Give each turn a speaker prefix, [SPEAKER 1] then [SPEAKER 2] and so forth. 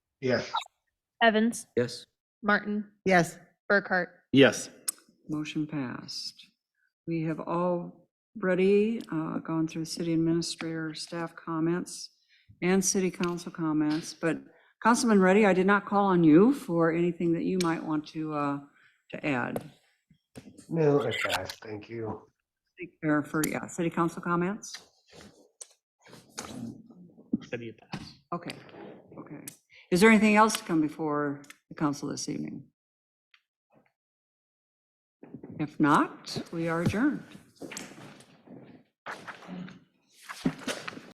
[SPEAKER 1] Yes.
[SPEAKER 2] Evans,
[SPEAKER 3] Yes.
[SPEAKER 2] Martin,
[SPEAKER 4] Yes.
[SPEAKER 2] Burkhart.
[SPEAKER 5] Yes.
[SPEAKER 6] Motion passed. We have already uh, gone through city administrator staff comments and city council comments, but Councilman Reddy, I did not call on you for anything that you might want to, uh, to add.
[SPEAKER 1] No, I passed. Thank you.
[SPEAKER 6] Or for, yeah, city council comments?
[SPEAKER 5] City pass.
[SPEAKER 6] Okay, okay. Is there anything else to come before the council this evening? If not, we are adjourned.